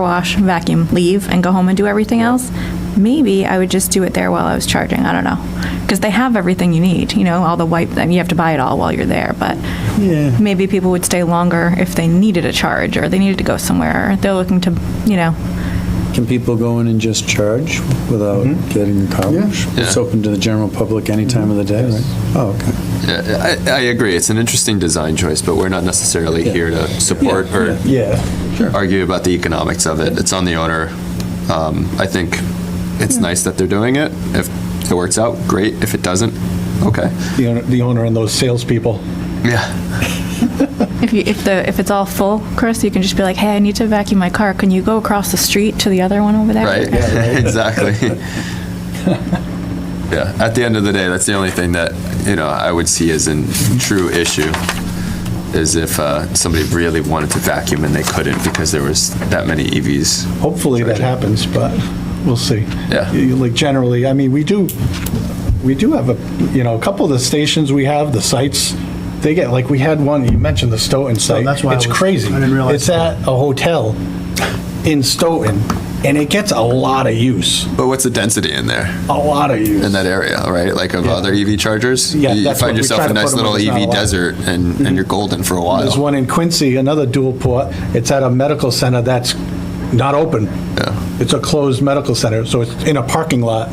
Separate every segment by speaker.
Speaker 1: wash, vacuum, leave, and go home and do everything else, maybe I would just do it there while I was charging. I don't know. Because they have everything you need, you know, all the wipe, and you have to buy it all while you're there, but
Speaker 2: Yeah.
Speaker 1: maybe people would stay longer if they needed a charge or they needed to go somewhere. or They're looking to, you know,
Speaker 2: Can people go in and just charge without getting a college? It's
Speaker 3: Yeah.
Speaker 2: open to the general public any time of the day, right? Oh, okay.
Speaker 3: Yeah, I, I agree. It's an interesting design choice, but we're not necessarily
Speaker 2: Yeah.
Speaker 3: here to support or
Speaker 2: Yeah.
Speaker 3: argue about the economics of it. It's on the owner. Um, I think it's nice that they're doing it. If it works out, great. If it doesn't, okay.
Speaker 4: The owner, the owner and those salespeople.
Speaker 3: Yeah.
Speaker 1: if you, if the, if it's all full, Chris, you can just be like, hey, I need to vacuum my car. Can you go across the street to the other one over there?
Speaker 3: Right. exactly. yeah. At the end of the day, that's the only thing that you know I would see as a true issue is if uh, somebody really wanted to vacuum and they couldn't because there was that many E EVs
Speaker 4: Hopefully that happens, but we'll see.
Speaker 3: Yeah.
Speaker 4: You- Like generally, I mean, we do, we do have a, you know, a couple of the stations we have, the sites, they get, like, we had one, you mentioned the Stoughton site.
Speaker 5: that's why I
Speaker 4: It's
Speaker 5: was-
Speaker 4: crazy.
Speaker 5: I didn't realize
Speaker 4: It's at a hotel in Stoughton, and it gets a lot of use,
Speaker 3: But what's the density in there,
Speaker 4: a lot of use.
Speaker 3: in that area, right? Like of
Speaker 4: Yeah.
Speaker 3: other EV chargers?
Speaker 4: Yeah,
Speaker 3: You
Speaker 4: that's
Speaker 3: find
Speaker 4: what we
Speaker 3: yourself
Speaker 4: try
Speaker 3: a
Speaker 4: to
Speaker 3: nice
Speaker 4: put 'em
Speaker 3: little
Speaker 4: where there's not a
Speaker 3: EV
Speaker 4: lot. Mm-hmm.
Speaker 3: desert and, and you're golden for a while.
Speaker 4: There's one in Quincy, another dual port. It's at a medical center that's not open. It's a closed medical center, so it's in a parking lot,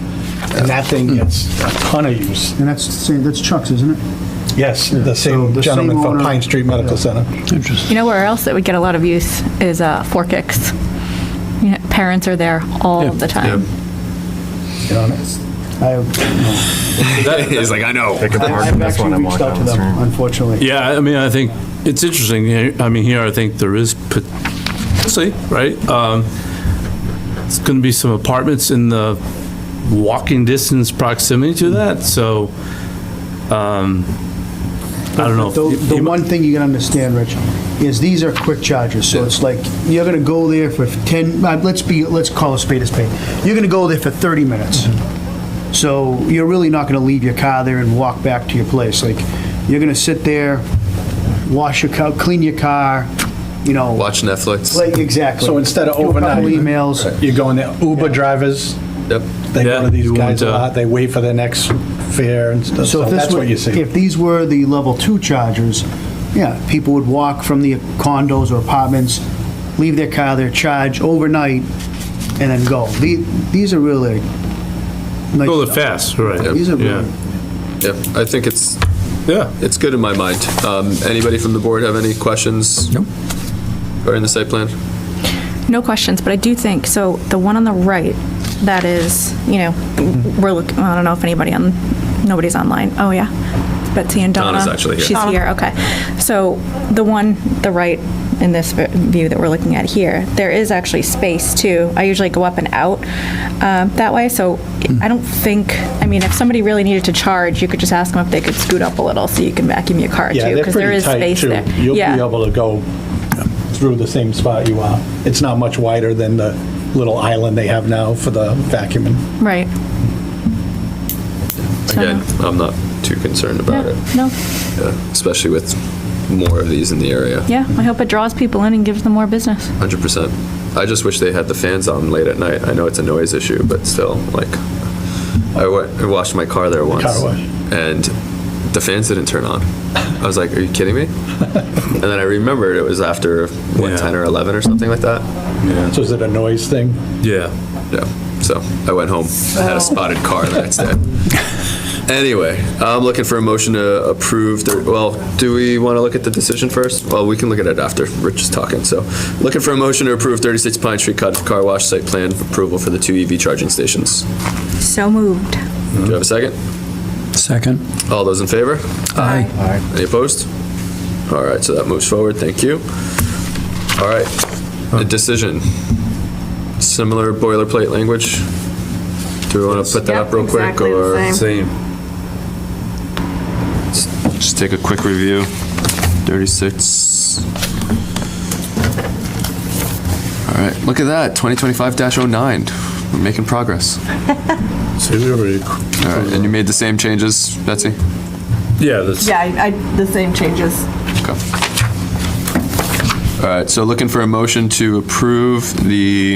Speaker 4: and that thing gets a ton of use.
Speaker 5: And that's, the same- that's Chuck's, isn't it?
Speaker 4: Yes,
Speaker 5: Yeah,
Speaker 4: the
Speaker 5: so
Speaker 4: same
Speaker 5: the
Speaker 4: gentleman
Speaker 5: same
Speaker 4: from
Speaker 5: owner-
Speaker 4: Pine Street Medical Center.
Speaker 1: You know where else it would get a lot of use is uh, fork kicks. You know, parents are there all the time.
Speaker 4: You know,
Speaker 5: I,
Speaker 3: He's like, I know.
Speaker 5: I've actually reached out to them, unfortunately.
Speaker 6: Yeah, I mean, I think it's interesting. I mean, here, I think there is, pot- we'll see, right? Um, It's going to be some apartments in the walking distance proximity to that, so, um, I don't know. if-
Speaker 5: The, the one thing you can understand, Rich, is these are quick chargers, so it's like, you're gonna go there for ten, uh, let's be, let's call a spade a spade. You're gonna go there for thirty minutes.
Speaker 4: Mm-hmm.
Speaker 5: So you're really not gonna leave your car there and walk back to your place, like, you're gonna sit there, wash your car, clean your car, you know.
Speaker 3: Watch Netflix.
Speaker 5: Like, exactly.
Speaker 4: So instead of
Speaker 5: Do a couple
Speaker 4: overnight.
Speaker 5: emails.
Speaker 4: You go in there, Uber drivers,
Speaker 3: Yep.
Speaker 4: they go
Speaker 6: Yeah,
Speaker 4: to these
Speaker 6: you
Speaker 4: guys a
Speaker 6: want, uh,
Speaker 4: lot, they wait for their next fare and stuff,
Speaker 5: So
Speaker 4: so
Speaker 5: if this
Speaker 4: that's
Speaker 5: were,
Speaker 4: what you see.
Speaker 5: if these were the level two chargers, yeah, people would walk from the condos or apartments, leave their car there, charge overnight, and then go. The- These are really nice.
Speaker 6: Well, they're
Speaker 5: stuff.
Speaker 6: fast, right?
Speaker 5: These are
Speaker 6: Yeah,
Speaker 5: really,
Speaker 3: Yep. I think it's,
Speaker 6: yeah.
Speaker 3: it's good in my mind. Um, anybody from the board have any questions? Nope. Or in the site plan?
Speaker 1: No questions, but I do think, so the one on the right, that is, you know,
Speaker 4: Mm-hmm.
Speaker 1: we're looking, I don't know if anybody on, nobody's online. Oh, yeah. Betsy and Donna.
Speaker 3: Donna's actually here.
Speaker 1: She's here, okay. So the one, the right in this vi- view that we're looking at here, there is actually space too. I usually go up and out um, that way, so
Speaker 4: Mm.
Speaker 1: I don't think, I mean, if somebody really needed to charge, you could just ask them if they could scoot up a little so you can vacuum your car too.
Speaker 4: Yeah, they're
Speaker 1: because there
Speaker 4: pretty
Speaker 1: is
Speaker 4: tight
Speaker 1: space
Speaker 4: too.
Speaker 1: there.
Speaker 4: You'll be
Speaker 1: Yeah.
Speaker 4: able to go through the same spot you are. It's not much wider than the little island they have now for the vacuuming.
Speaker 1: Right. So-
Speaker 3: Again, I'm not too concerned about it,
Speaker 1: Yeah, No,
Speaker 3: Yeah, especially with more of these in the area.
Speaker 1: Yeah, I hope it draws people in and gives them more business.
Speaker 3: Hundred percent. I just wish they had the fans on late at night. I know it's a noise issue, but still, like, I wa- I washed my car there once.
Speaker 4: Car wash.
Speaker 3: And the fans didn't turn on. I was like, are you kidding me? And then I remembered it was after, what,
Speaker 6: Yeah.
Speaker 3: 10 or 11 or something like that?
Speaker 4: So is it a noise thing?
Speaker 6: Yeah.
Speaker 3: Yeah. So I went home. I had a spotted car the next day. Anyway, I'm looking for a motion to approve, the- well, do we want to look at the decision first? Well, we can look at it after Rich is talking, so. Looking for a motion to approve 36 Pine Street Car Car Wash Site Plan Approval for the two EV charging stations.
Speaker 1: So moved.
Speaker 3: Do you have a second?
Speaker 2: Second.
Speaker 3: All those in favor? Aye. Any opposed? All right, so that moves forward, thank you. All right, a decision. Similar boilerplate language? Do we want to put that up real quick,
Speaker 7: Exactly the
Speaker 3: or?
Speaker 7: same.
Speaker 6: Same.
Speaker 3: Just take a quick review. 36. All right, look at that, 2025-09. We're making progress.
Speaker 6: So we already-
Speaker 3: All right, and you made the same changes, Betsy?
Speaker 6: Yeah, that's,
Speaker 7: Yeah, I, I- the same changes.
Speaker 3: Okay. All right, so looking for a motion to approve the